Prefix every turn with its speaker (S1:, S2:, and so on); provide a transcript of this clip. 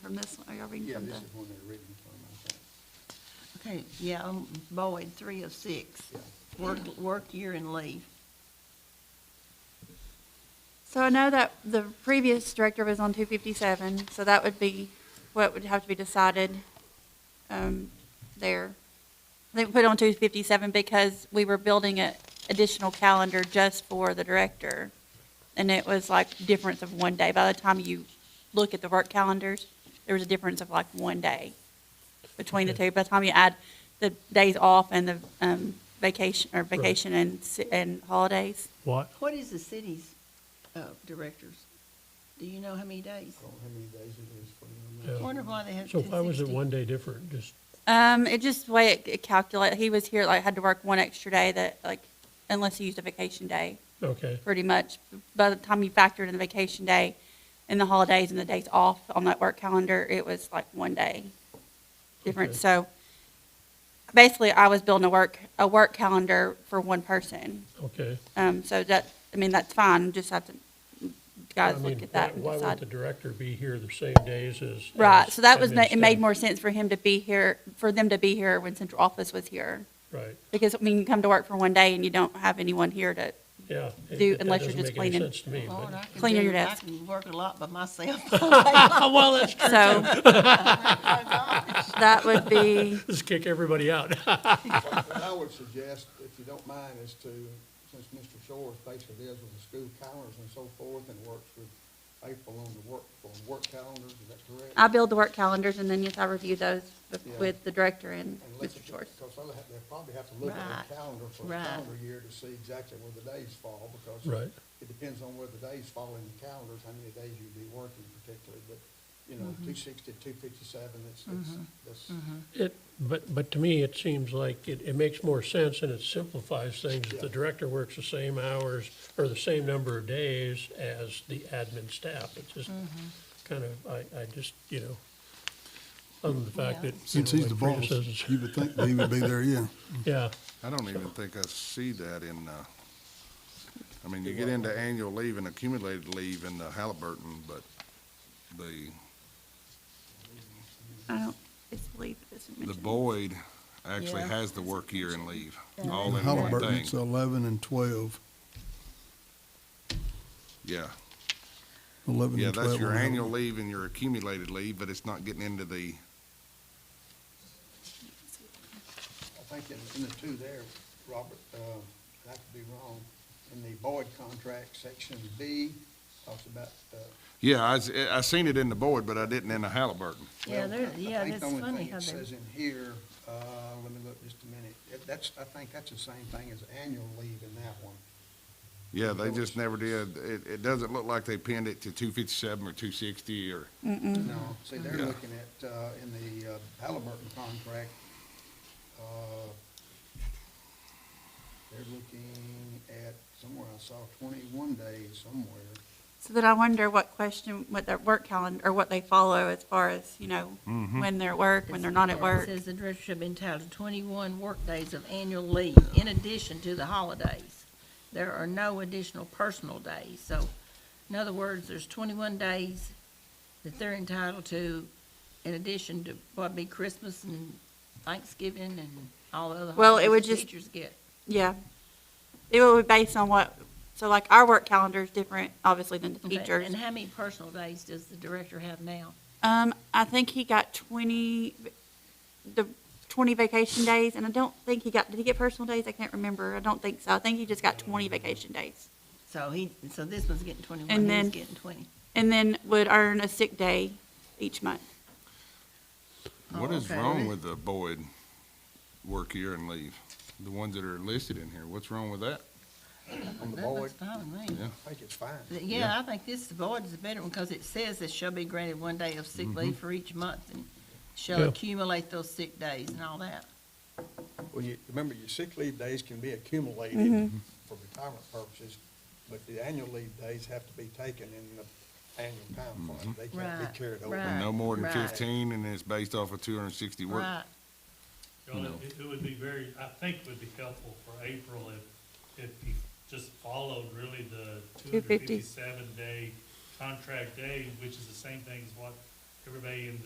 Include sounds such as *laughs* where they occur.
S1: from this one? Are y'all reading
S2: Yeah,
S1: from
S2: this
S1: the?
S3: uh,
S2: is one they're reading from, I think.
S3: Okay, yeah, I'm Boyd, three of six.
S2: Yeah.
S3: Work, work year and leave.
S1: So I know that the previous director was on two fifty-seven, so that would be what would have to be decided, um, there. They put on two fifty-seven because we were building a additional calendar just for the director. And it was like difference of one day. By the time you look at the work calendars, there was a difference of like one day between the two. By the time you add the days off and the, um, vacation, or vacation and, si- and holidays.
S4: What?
S3: What is the city's, uh, directors? Do you know how many days?
S2: I don't know how many days it is for
S3: I
S2: them.
S4: Yeah.
S3: Wonder why they have
S4: So
S3: two
S4: why was it
S3: sixty.
S4: one day different? Just,
S1: Um, it just the way it, it calculated. He was here like had to work one extra day that like unless he used a vacation day,
S4: okay,
S1: pretty much. By the time you factored in the vacation day, and the holidays and the days off on that work calendar, it was like one day difference.
S4: Okay.
S1: So basically, I was building a work a work calendar for one person.
S4: okay.
S1: Um, so that I mean that's fine. Just have to guys
S4: I mean,
S1: look at that
S4: why-
S1: and
S4: Why
S1: decide.
S4: would the director be here the same days as?
S1: Right,
S4: as
S1: so that was, ma-
S4: admin
S1: it made
S4: staff?
S1: more sense for him to be here, for them to be here when central office was here.
S4: Right,
S1: Because, I mean, you come to work for one day and you don't have anyone here to,
S4: yeah. it-
S1: Do-
S4: it- that
S1: unless you're
S4: doesn't
S1: just
S4: make any
S1: cleaning.
S4: sense to me,
S3: Lord, I
S4: *laughs* but,
S3: can
S1: Clean
S3: do-
S1: your desk.
S3: I can work a lot by myself.
S4: oh, well, that's
S1: *laughs*
S4: true.
S1: so. That would be,
S4: Just kick everybody out. *laughs*
S2: What I would suggest, if you don't mind, is to, since Mr. Shores basically deals with the school calendars and so forth and works with April on the work, on work calendars, is that correct?
S1: I build the work calendars and then yes, I review those with-
S2: Yeah.
S1: with the director and
S2: And look
S1: Mr.
S2: at the-
S1: Shores.
S2: Because they'll have, they'll probably have to look at the
S3: Right,
S2: calendar for a
S3: right.
S2: calendar year to see exactly where the days fall, because
S4: Right.
S2: it depends on where the days fall in the calendars, how many days you'd be working particularly, but, you know,
S3: Mm-hmm.
S2: two sixty, two fifty-seven, it's, it's, that's,
S4: It, but, but to me, it seems like it, it makes more sense and it simplifies things. If the
S2: Yeah.
S4: director works the same hours or the same number of days as the admin staff, it just kind of, I, I just, you know, other than the fact that. you
S5: Since
S4: know,
S5: he's the
S4: my
S5: boss,
S4: predecessors-
S5: you would think that he would be there, yeah.
S4: *laughs* Yeah,
S6: I don't even think I see that in, uh, I mean, you get into annual leave and accumulated leave in the Halliburton, but the,
S1: I don't, it's believe this is
S6: the
S1: mentioned.
S6: Boyd actually
S3: Yeah.
S6: has the work year and leave, all in one
S5: Halliburton, it's
S6: thing.
S5: eleven and twelve.
S6: Yeah,
S5: 11
S6: yeah,
S5: and twelve.
S6: that's your
S5: on that
S6: annual
S5: one.
S6: leave and your accumulated leave, but it's not getting into the,
S2: I think in, in the two there, Robert, uh, I could be wrong, in the Boyd contract, section B, talks about, uh,
S6: yeah, I, s- I seen it in the Boyd, but I didn't in the Halliburton.
S3: *laughs* Yeah,
S2: well,
S3: they're,
S2: I- I
S3: yeah,
S2: think
S3: that's
S2: the only
S3: funny
S2: thing
S3: how
S2: it
S3: they,
S2: Says in here, uh, let me look just a minute, It- that's, I think that's the same thing as annual leave in that one.
S6: Yeah, they just never did, it, it doesn't look like they pinned it to two fifty-seven or two sixty or,
S2: No, see, they're
S6: Yeah.
S2: looking at, uh, in the uh, Halliburton contract, uh, they're looking at, somewhere I saw twenty-one days somewhere.
S1: So then I wonder what question, what their work calendar, or what they follow as far as, you know, when they're at work, when they're not at
S3: it
S1: work.
S3: says the director should be entitled to twenty-one workdays of annual leave in addition to the holidays. There are no additional personal days, so in other words, there's twenty-one days that they're entitled to in addition to what be Christmas and Thanksgiving and all the other
S1: Well, it would
S3: holidays that
S1: just-
S3: teachers get.
S1: Yeah. It would be based on what, so like our work calendar is different, obviously, than the
S3: Okay,
S1: teachers.
S3: And how many personal days does the director have now?
S1: Um, I think he got twenty, the twenty vacation days, and I don't think he got, did he get personal days? I can't remember. I don't think so. I think he just got twenty vacation days.
S3: So he, so this one's getting
S1: And
S3: twenty-one, he's
S1: then-
S3: getting twenty.
S1: And then would earn a sick day each month.
S6: what
S3: Oh,
S6: is
S3: okay.
S6: wrong with the Boyd work year and leave? The ones that are listed in here, what's wrong with that?
S2: On the
S3: That
S2: Boyd,
S3: looks fine with me.
S6: Yeah.
S2: I think it's fine.
S3: Th- Yeah, I think this void is a better one, because it says it shall be granted one day of sick leave for each month, and shall
S4: Yeah.
S3: accumulate those sick days and all that.
S2: Well, you, remember, your sick leave days can be accumulated for retirement purposes, but the annual leave days have to be taken in the annual time frame. They can't
S3: Right,
S2: be carried over.
S3: right.
S6: No more than
S3: Right.
S6: fifteen, and it's based off of two hundred and sixty work.
S3: Right,
S7: Well, it- it would be very, I think would be helpful for April if, if you just followed really the two hundred
S1: 250.
S7: fifty-seven day contract day, which is the same thing as what everybody in the